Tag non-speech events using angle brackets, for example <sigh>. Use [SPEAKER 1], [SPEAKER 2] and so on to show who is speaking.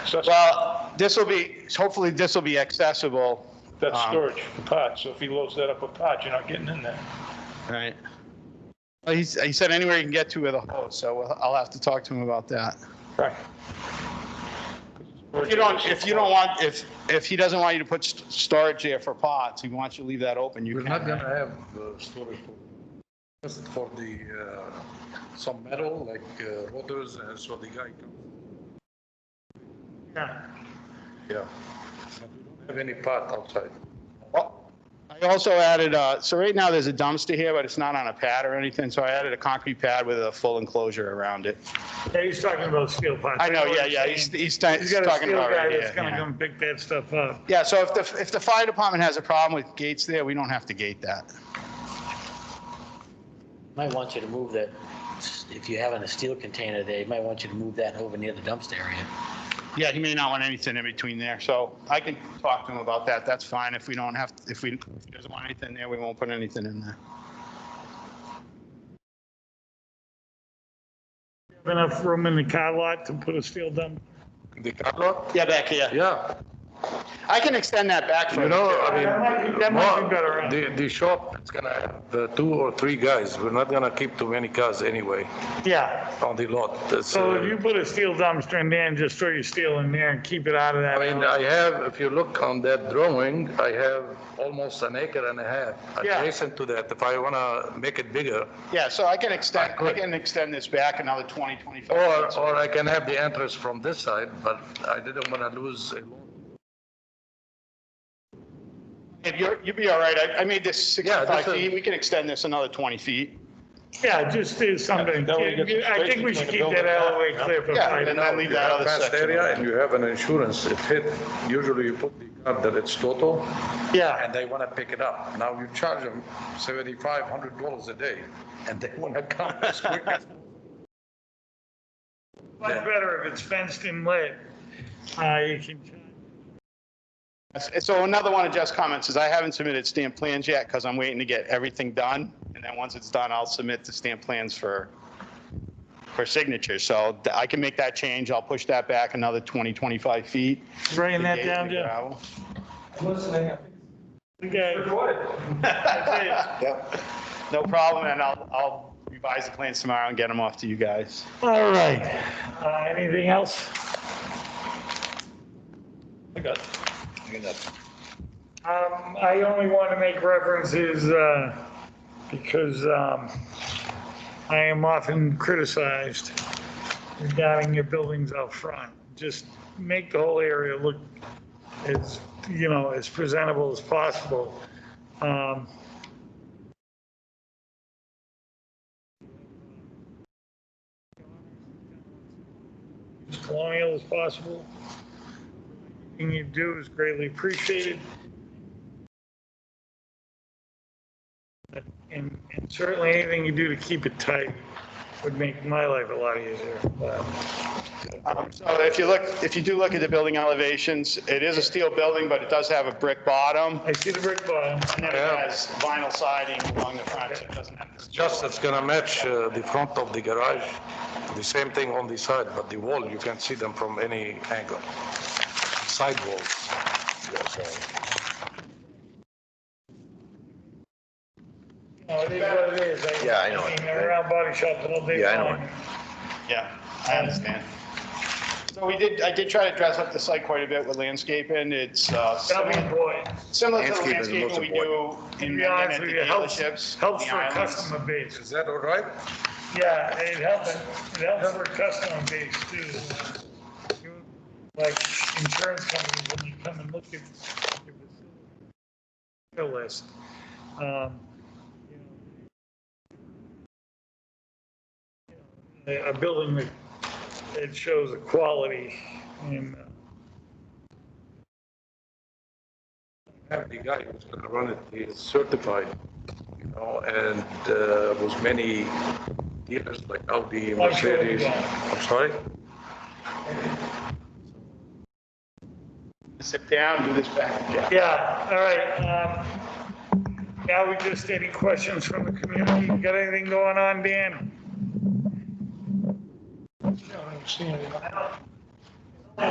[SPEAKER 1] accessible.
[SPEAKER 2] Well, this will be, hopefully this will be accessible.
[SPEAKER 1] That's
[SPEAKER 2] um,
[SPEAKER 1] storage for pots, so if he loads that up with pots, you're not getting in there.
[SPEAKER 2] Right. Well, he's, he said anywhere you can get to with a hose, so we'll- I'll have to talk to him about that.
[SPEAKER 1] Right.
[SPEAKER 2] If you don't, if you don't want, if, if he doesn't want you to put st- storage there for pots, he wants you to leave that open, you
[SPEAKER 3] We're not
[SPEAKER 2] can.
[SPEAKER 3] gonna have uh, storage for- just for the, uh, some metal like uh, rotors, uh, so the guy can,
[SPEAKER 1] Yeah.
[SPEAKER 3] yeah. But we don't Have any part outside?
[SPEAKER 2] I also added, uh, so right now there's a dumpster here, but it's not on a pad or anything, so I added a concrete pad with a full enclosure around it.
[SPEAKER 4] Yeah, he's talking about steel pots.
[SPEAKER 2] I know, yeah, yeah, he's, he's ta-
[SPEAKER 4] He's
[SPEAKER 2] he's
[SPEAKER 4] got a
[SPEAKER 2] talking
[SPEAKER 4] steel
[SPEAKER 2] about right
[SPEAKER 4] guy
[SPEAKER 2] here.
[SPEAKER 4] that's gonna
[SPEAKER 2] yeah.
[SPEAKER 4] come pick that stuff up.
[SPEAKER 2] Yeah, so if the, if the fire department has a problem with gates there, we don't have to gate that.
[SPEAKER 5] Might want you to move that, if you have in a steel container there, you might want you to move that over near the dumpster area.
[SPEAKER 2] Yeah, he may not want anything in between there, so I can talk to him about that. That's fine. If we don't have, if we, if he doesn't want anything there, we won't put anything in there.
[SPEAKER 4] Enough room in the car lot to put a steel dump.
[SPEAKER 3] The car lot?
[SPEAKER 2] Yeah, back here.
[SPEAKER 3] Yeah,
[SPEAKER 2] I can extend that back for
[SPEAKER 3] you know, I mean.
[SPEAKER 4] That might be- that might be
[SPEAKER 3] more-
[SPEAKER 4] better, huh?
[SPEAKER 3] The, the shop, it's gonna have uh, two or three guys. We're not gonna keep too many cars anyway
[SPEAKER 4] Yeah,
[SPEAKER 3] on the lot. That's,
[SPEAKER 4] so
[SPEAKER 3] uh,
[SPEAKER 4] if you put a steel dumpster in there and just throw your steel in there and keep it out of
[SPEAKER 3] I
[SPEAKER 4] that.
[SPEAKER 3] mean, I have, if you look on that drawing, I have almost an acre and a half
[SPEAKER 4] Yeah.
[SPEAKER 3] adjacent to that. If I wanna make it bigger,
[SPEAKER 2] Yeah, so I can extend, I
[SPEAKER 3] Good.
[SPEAKER 2] can extend this back another 20, 25.
[SPEAKER 3] or,
[SPEAKER 2] feet.
[SPEAKER 3] or I can have the entrance from this side, but I didn't wanna lose. a lot.
[SPEAKER 2] If you're, you'd be all right. I, I made this
[SPEAKER 3] Yeah,
[SPEAKER 2] 65
[SPEAKER 3] that's a-
[SPEAKER 2] feet. We can extend this another 20 feet.
[SPEAKER 4] Yeah, just do something.
[SPEAKER 1] That way you get some
[SPEAKER 4] I think we
[SPEAKER 1] space
[SPEAKER 4] should
[SPEAKER 1] between
[SPEAKER 4] keep
[SPEAKER 1] the
[SPEAKER 4] that
[SPEAKER 1] building.
[SPEAKER 4] alleyway clear for
[SPEAKER 2] Yeah,
[SPEAKER 4] five.
[SPEAKER 2] and then I leave
[SPEAKER 3] You
[SPEAKER 2] that
[SPEAKER 3] have
[SPEAKER 2] other
[SPEAKER 3] fenced
[SPEAKER 2] section.
[SPEAKER 3] area and you have an insurance, if hit, usually you put the card that it's total,
[SPEAKER 4] Yeah,
[SPEAKER 3] and they wanna pick it up. Now you charge them seventy-five hundred dollars a day, and they wanna come <laughs> as quick as.
[SPEAKER 4] much better if it's fenced and lit. Uh, you can,
[SPEAKER 2] That's- So another one of Jeff's comments is I haven't submitted stamp plans yet because I'm waiting to get everything done. And then once it's done, I'll submit the stamp plans for, for signature. So th- I can make that change. I'll push that back another 20, 25 feet.
[SPEAKER 4] bring that
[SPEAKER 2] The gate
[SPEAKER 4] down,
[SPEAKER 2] and the
[SPEAKER 4] Jeff.
[SPEAKER 2] gravel.
[SPEAKER 4] Okay.
[SPEAKER 2] Yep. No problem, and I'll, I'll revise the plans tomorrow and get them off to you guys.
[SPEAKER 4] All right. Uh, anything else?
[SPEAKER 1] I got it.
[SPEAKER 4] Um, I only want to make references, uh, because, um, I am often criticized regarding your buildings out front. Just make the whole area look as, you know, as presentable as possible. Um, As colonial as possible. Anything you do is greatly appreciated. And and certainly anything you do to keep it tight would make my life a lot easier. Uh, But
[SPEAKER 2] Um, So if you look, if you do look at the building elevations, it is a steel building, but it does have a brick bottom,
[SPEAKER 4] I see the brick bottom.
[SPEAKER 2] and then it has vinyl siding along the front, so it doesn't have to.
[SPEAKER 3] Just it's gonna match uh, the front of the garage, the same thing on the side, but the wall, you can see them from any angle. Side walls.
[SPEAKER 4] No, it is what it is. I-
[SPEAKER 6] Yeah, I know.
[SPEAKER 4] I mean, I'm around body shops all day
[SPEAKER 6] Yeah, I know.
[SPEAKER 4] long.
[SPEAKER 2] Yeah, I understand. So we did, I did try to dress up the site quite a bit with landscaping. It's uh,
[SPEAKER 4] That'll be
[SPEAKER 2] similar
[SPEAKER 4] important.
[SPEAKER 2] similar to the
[SPEAKER 6] Landscaping is the most
[SPEAKER 2] landscaping we do
[SPEAKER 4] To
[SPEAKER 2] in
[SPEAKER 4] be
[SPEAKER 2] Mendon
[SPEAKER 4] honest
[SPEAKER 2] at the
[SPEAKER 4] with you, it helps,
[SPEAKER 2] dealerships.
[SPEAKER 4] helps
[SPEAKER 2] the
[SPEAKER 4] for a
[SPEAKER 2] islands.
[SPEAKER 4] customer base.
[SPEAKER 3] Is that all right?
[SPEAKER 4] Yeah, it helps, it helps for a customer base too. Like insurance companies, when you come and look at the list. um, you know, A a building that, that shows the quality and uh,
[SPEAKER 3] Have the guy who's gonna run it, he is certified, you know, and uh, was many dealers like Audi,
[SPEAKER 4] I'm sure he
[SPEAKER 3] Mercedes.
[SPEAKER 4] will.
[SPEAKER 3] I'm sorry?
[SPEAKER 2] Sit down, do this back. Yeah.
[SPEAKER 4] Yeah, all right. um, Now we just, any questions from the community? You Got anything going on, Dan?
[SPEAKER 1] I don't see any.
[SPEAKER 4] I don't